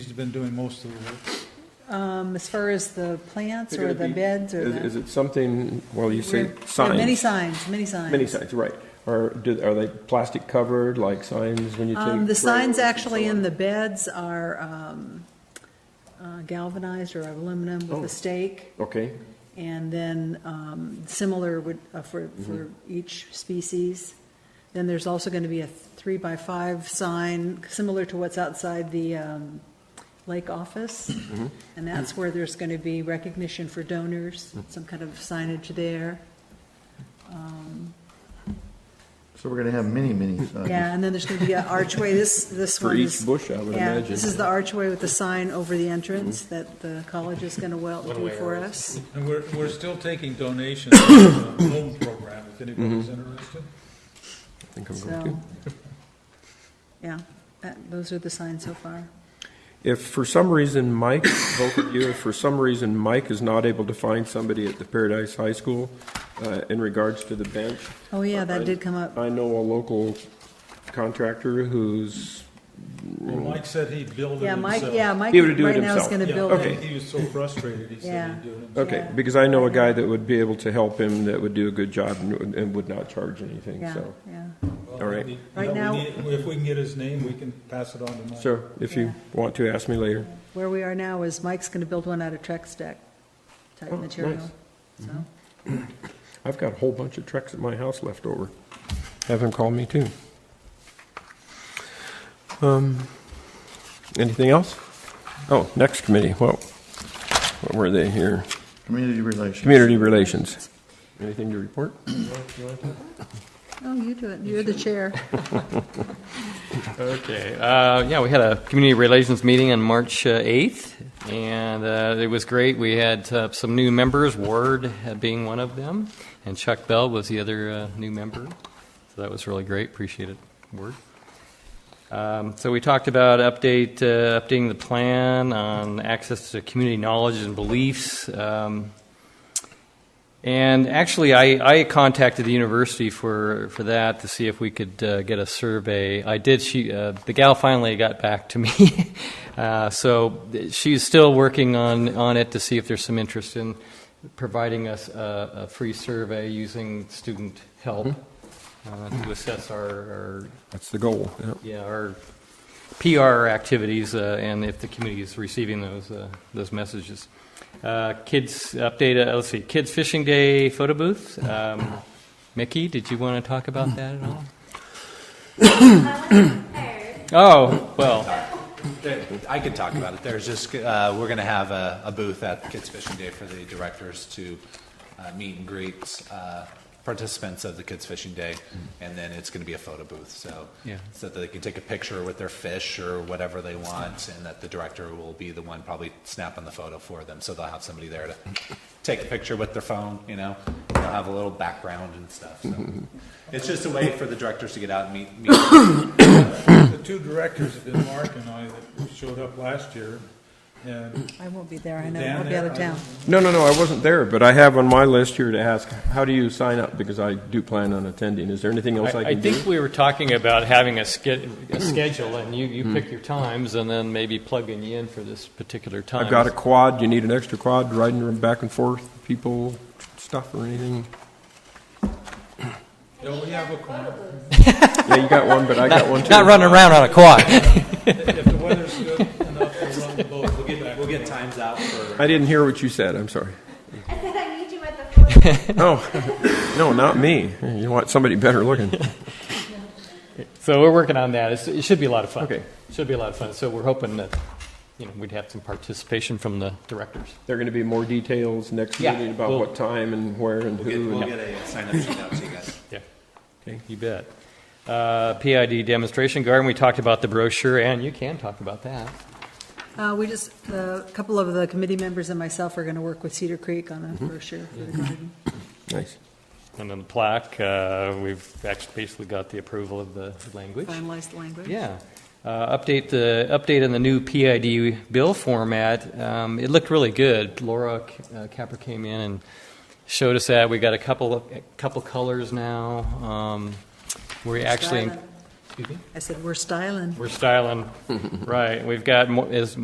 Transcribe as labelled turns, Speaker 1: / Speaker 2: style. Speaker 1: He's been doing most of the work.
Speaker 2: Um, as far as the plants
Speaker 3: They're
Speaker 2: or the
Speaker 3: gonna be-
Speaker 2: beds or
Speaker 3: Is,
Speaker 2: the.
Speaker 3: is it something, well, you say
Speaker 2: There are
Speaker 3: signs?
Speaker 2: Many signs, many signs. Um,
Speaker 3: Many signs, right. Or do, are they plastic covered, like signs when you take?
Speaker 2: Um, the
Speaker 3: photos
Speaker 2: signs
Speaker 3: and
Speaker 2: actually
Speaker 3: so on?
Speaker 2: in the beds are, um, uh, galvanized or aluminum with
Speaker 3: Oh.
Speaker 2: a stake.
Speaker 3: Okay,
Speaker 2: And then, um, similar would, uh, for,
Speaker 3: Mm-hmm.
Speaker 2: for each species. Then there's also gonna be a three by five sign, similar to what's outside the, um, lake office.
Speaker 3: Mm-hmm.
Speaker 2: And that's where there's gonna be recognition for donors,
Speaker 3: Mm-hmm.
Speaker 2: some kind of signage there.
Speaker 4: So we're gonna have many, many uh, signs.
Speaker 2: Yeah, and then there's going to be an archway, this, this
Speaker 3: For
Speaker 2: one
Speaker 3: each
Speaker 2: is-
Speaker 3: bush, I would
Speaker 2: yeah,
Speaker 3: imagine.
Speaker 2: This is the archway with the sign over the entrance that the college is going to well do for us.
Speaker 1: And we're, we're still taking donations for the loan program, if anybody's
Speaker 3: Mm-hmm.
Speaker 1: interested.
Speaker 3: I think I'm going to.
Speaker 2: So, yeah, that, those are the signs so far.
Speaker 3: If for some reason Mike, both of you, if for some reason Mike is not able to find somebody at the Paradise High School uh, in regards to the bench.
Speaker 2: Oh, yeah, that
Speaker 3: I-
Speaker 2: did come up.
Speaker 3: I know a local contractor who's,
Speaker 1: Well, Mike said he'd build it
Speaker 2: Yeah,
Speaker 1: himself.
Speaker 2: Mike, yeah, Mike
Speaker 3: He would do it
Speaker 2: right now is
Speaker 3: himself.
Speaker 2: going to
Speaker 1: Yeah,
Speaker 2: build
Speaker 3: okay.
Speaker 2: it.
Speaker 1: He was so frustrated, he
Speaker 2: Yeah.
Speaker 1: said he'd do it himself.
Speaker 3: okay,
Speaker 2: Yeah.
Speaker 3: because I know a guy that would be able to help him, that would do a good job and would- and would not charge anything,
Speaker 2: Yeah,
Speaker 3: so.
Speaker 2: yeah.
Speaker 1: Well,
Speaker 3: All right.
Speaker 1: we need-
Speaker 2: Right
Speaker 1: no, we
Speaker 2: now-
Speaker 1: need- If we can get his name, we can pass it on to Mike.
Speaker 3: So if you want to, ask me later.
Speaker 2: Where we are now is Mike's going to build one out of Trex deck type
Speaker 3: Oh,
Speaker 2: material.
Speaker 3: nice. Mm-hmm.
Speaker 2: So,
Speaker 3: I've got a whole bunch of trucks at my house left over. Have him call me too. Um, anything else? Oh, next committee, well, what were they here?
Speaker 4: Community relations.
Speaker 3: Community Relations. Anything to report?
Speaker 2: oh, you do it, you're the chair.
Speaker 5: Okay, uh, yeah, we had a community relations meeting on March uh, 8th, and uh, it was great. We had uh, some new members, Ward uh, being one of them, and Chuck Bell was the other uh, new member. So that was really great, appreciate it, Ward. Um, So we talked about update, uh, updating the plan on access to community knowledge and beliefs. Um, and actually, I, I contacted the university for, for that to see if we could uh, get a survey. I did. She, uh, the gal finally got back to me. uh, so she's still working on, on it to see if there's some interest in providing us a, a free survey using student help uh, to assess our, our
Speaker 3: That's the goal. yeah.
Speaker 5: yeah, our PR activities, uh, and if the community is receiving those, uh, those messages. Uh, Kids update, uh, let's see, Kids Fishing Day photo booth. Um, Mickey, did you want to talk about that at all? Oh, well,
Speaker 6: There- I could talk about it. There's just, uh, we're going to have a a booth at Kids Fishing Day for the directors to uh, meet and greet uh, participants of the Kids Fishing Day, and then it's going to be a photo booth, so.
Speaker 5: Yeah.
Speaker 6: So that they can take a picture with their fish or whatever they want, and that the director will be the one probably snapping the photo for them. So they'll have somebody there to take a picture with their phone, you know? They'll have a little background and stuff, so. It's just a way for the directors to get out and meet, meet
Speaker 1: The two directors have been Mark and I that showed up last year, and
Speaker 2: I won't be there, I know,
Speaker 1: Dan
Speaker 2: I'll be
Speaker 1: there,
Speaker 2: out of
Speaker 1: I-
Speaker 2: town.
Speaker 3: No, no, no, I wasn't there, but I have on my list here to ask, how do you sign up? Because I do plan on attending. Is there anything else
Speaker 5: I
Speaker 3: I
Speaker 5: I
Speaker 3: can do?
Speaker 5: think we were talking about having a sched- a schedule, and you, you
Speaker 3: Hmm.
Speaker 5: pick your times, and then maybe plugging you in for this particular time.
Speaker 3: I've got a quad. You need an extra quad riding back and forth, people, stuff or anything?
Speaker 1: yeah, we have a corner.
Speaker 3: Yeah, you got one, but I got one too.
Speaker 5: Not running around on a quad.
Speaker 1: If the weather's good enough, we'll run the boat. We'll get,
Speaker 6: we'll get times out for.
Speaker 3: I didn't hear what you said. I'm sorry.
Speaker 7: I said I need you at the foot.
Speaker 3: Oh, no, not me. You want somebody better looking.
Speaker 5: So we're working on that. It's, it should be a lot of fun.
Speaker 3: Okay.
Speaker 5: Should be a lot of fun. So we're hoping that, you know, we'd have some participation from the directors.
Speaker 3: There are going to be more details next
Speaker 5: Yeah.
Speaker 3: meeting about
Speaker 5: We'll-
Speaker 3: what time and where and
Speaker 6: We'll get,
Speaker 3: who.
Speaker 6: we'll
Speaker 3: and-
Speaker 6: get a sign up sheet out to you guys.
Speaker 5: Yeah. Okay. You bet. Uh, PID demonstration garden. We talked about the brochure, and you can talk about that.
Speaker 2: Uh, we just, a couple of the committee members and myself are going to work with Cedar Creek on a
Speaker 5: Mm-hmm.
Speaker 2: brochure for the garden.
Speaker 3: Nice.
Speaker 5: And then the plaque. Uh, we've actually basically got the approval of the language.
Speaker 2: Finalized language.
Speaker 5: Yeah. Uh, Update the, update on the new PID bill format. Um, It looked really good. Laura uh, Capper came in and showed us that. We got a couple, of a couple colors now. Um, We actually,
Speaker 2: Styling. I said, we're styling.
Speaker 5: we're styling, right. We've got, more- as